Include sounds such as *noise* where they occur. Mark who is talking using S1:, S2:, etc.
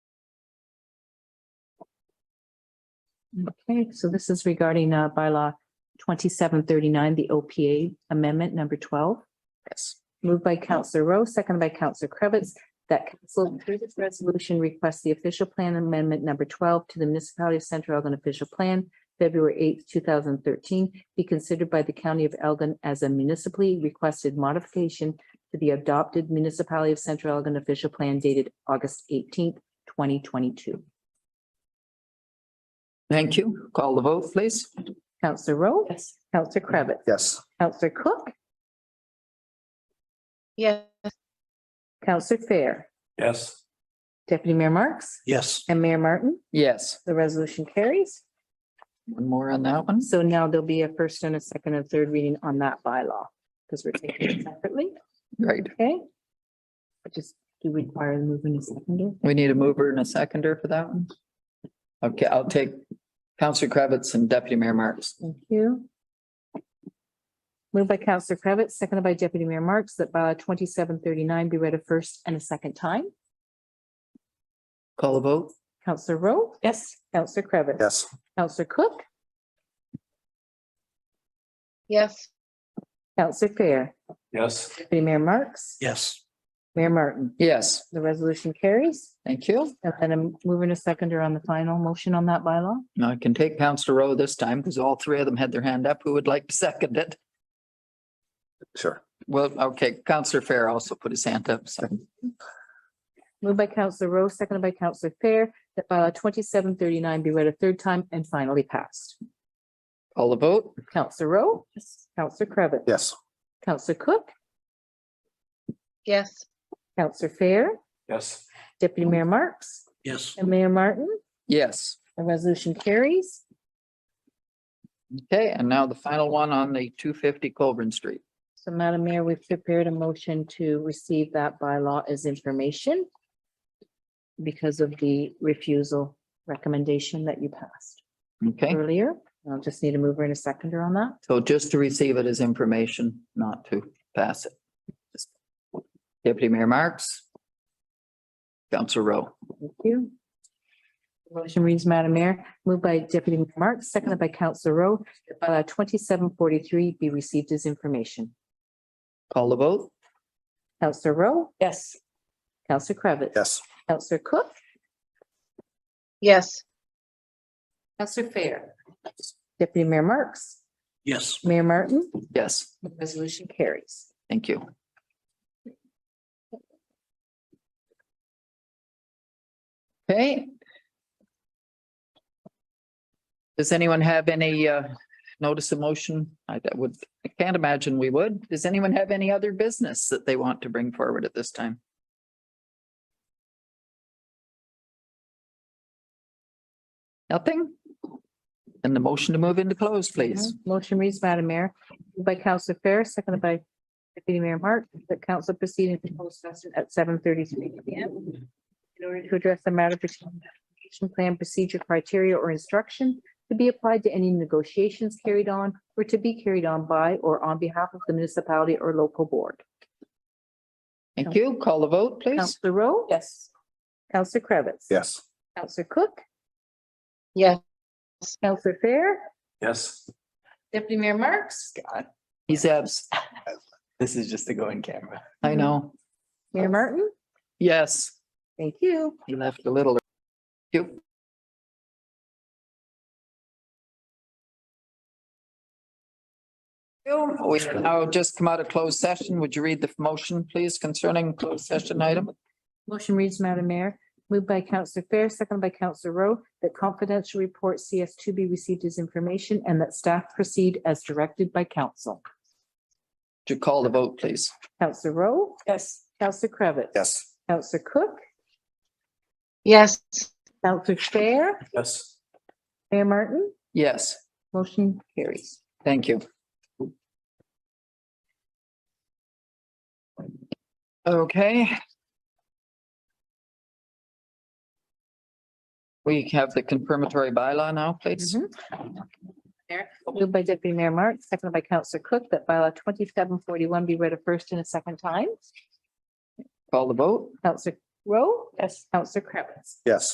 S1: Okay, so this is regarding uh bylaw twenty-seven thirty-nine, the OPA amendment number twelve. Yes. Moved by Counselor Rowe, seconded by Counselor Cravitz, that council through this resolution requests the official plan amendment number twelve to the municipality of Central Elgin official plan, February eighth, two thousand thirteen, be considered by the county of Elgin as a municipally requested modification to the adopted municipality of Central Elgin official plan dated August eighteenth, twenty twenty-two.
S2: Thank you. Call the vote, please.
S1: Counselor Rowe? Yes. Counselor Cravitz?
S3: Yes.
S1: Counselor Cook?
S4: Yes.
S1: Counselor Fair?
S3: Yes.
S1: Deputy Mayor Marks?
S3: Yes.
S1: And Mayor Martin?
S2: Yes,
S1: The resolution carries.
S2: one more on that one.
S1: So now there'll be a first and a second and third reading on that bylaw because we're taking it separately,
S2: Right.
S1: okay? I Just do require the movement in second.
S2: We need a mover and a seconder for that one. Okay, I'll take Counselor Kravitz and Deputy Mayor Marks.
S1: Thank you. Moved by Counselor Cravitz, seconded by Deputy Mayor Marks, that bylaw twenty-seven thirty-nine be read a first and a second time.
S2: Call the vote.
S1: Counselor Rowe? Yes. Counselor Cravitz?
S3: Yes.
S1: Counselor Cook?
S4: Yes.
S1: Counselor Fair?
S3: Yes.
S1: Deputy Mayor Marks?
S3: Yes.
S1: Mayor Martin?
S2: Yes,
S1: The resolution carries.
S2: thank you.
S1: And then I'm moving a seconder on the final motion on that bylaw.
S2: Now I can take Counselor Rowe this time because all three of them had their hand up. Who would like to *laughs* second it?
S3: Sure.
S2: Well, okay, Counselor Fair also put his hand up, so.
S1: Moved by Counselor Rowe, seconded by Counselor Fair, that bylaw twenty-seven thirty-nine be read a third time and finally passed.
S2: Call the vote.
S1: Counselor Rowe? Yes. Counselor Cravitz?
S3: Yes.
S1: Counselor Cook?
S4: Yes.
S1: Counselor Fair?
S3: Yes.
S1: Deputy Mayor Marks?
S3: Yes.
S1: And Mayor Martin?
S2: Yes.
S1: The resolution carries.
S2: Okay, and now the final one on the two fifty Colburn Street.
S1: So Madam Mayor, we've prepared a motion to receive that bylaw as information because of the refusal recommendation that you passed
S2: Okay,
S1: earlier. I'll just need a mover and a seconder on that.
S2: so just to receive it as information, not to pass it. Deputy Mayor Marks. Counselor Rowe.
S1: Thank you. Motion reads, Madam Mayor, moved by Deputy Mayor Marks, seconded by Councillor Rowe, that bylaw twenty-seven forty-three be received as information.
S2: Call the vote.
S1: Councillor Rowe? Yes. Councillor Cravitz?
S3: Yes.
S1: Councillor Cook?
S4: Yes.
S1: Councillor Fair? Deputy Mayor Marks?
S3: Yes.
S1: Mayor Martin?
S2: Yes,
S1: The resolution carries.
S2: thank you. Okay. Does anyone have any uh, notice of motion? I that would, I can't imagine we would. Does anyone have any other business that they want to bring forward at this time? Nothing? Then the motion to move into close, please.
S1: Uh-huh. Motion reads, Madam Mayor, moved by Councillor Fair, seconded by Deputy Mayor Mark, that council proceed into closed session at seven thirty-three PM in order to address the matter pertaining to application plan procedure criteria or instruction to be applied to any negotiations carried on or to be carried on by or on behalf of the municipality or local board.
S2: Thank you. Call the vote, please.
S1: Councillor Rowe? Yes. Councillor Cravitz?
S3: Yes.
S1: Councillor Cook?
S4: Yes.
S1: Councillor Fair?
S3: Yes.
S1: Deputy Mayor Marks?
S2: He's abs.
S3: This is just to go in camera.
S2: I know.
S1: Mayor Martin?
S2: Yes,
S1: Thank you.
S2: he left a little. You. We have now just come out of closed session. Would you read the motion, please, concerning closed session item?
S1: Motion reads, Madam Mayor, moved by Counselor Fair, seconded by Counselor Rowe, that confidential report CS two be received as information and that staff proceed as directed by council.
S2: To call the vote, please.
S1: Counselor Rowe? Yes. Counselor Cravitz?
S3: Yes.
S1: Counselor Cook?
S4: Yes.
S1: Counselor Fair?
S3: Yes.
S1: Mayor Martin?
S2: Yes,
S1: Motion carries.
S2: thank you. Okay. We have the confirmatory bylaw now, please.
S1: Mm-hmm. Moved by Deputy Mayor Marks, seconded by Counselor Cook, that bylaw twenty-seven forty-one be read a first and a second time.
S2: Call the vote.
S1: Counselor Rowe? Yes. Counselor Cravitz?
S3: Yes.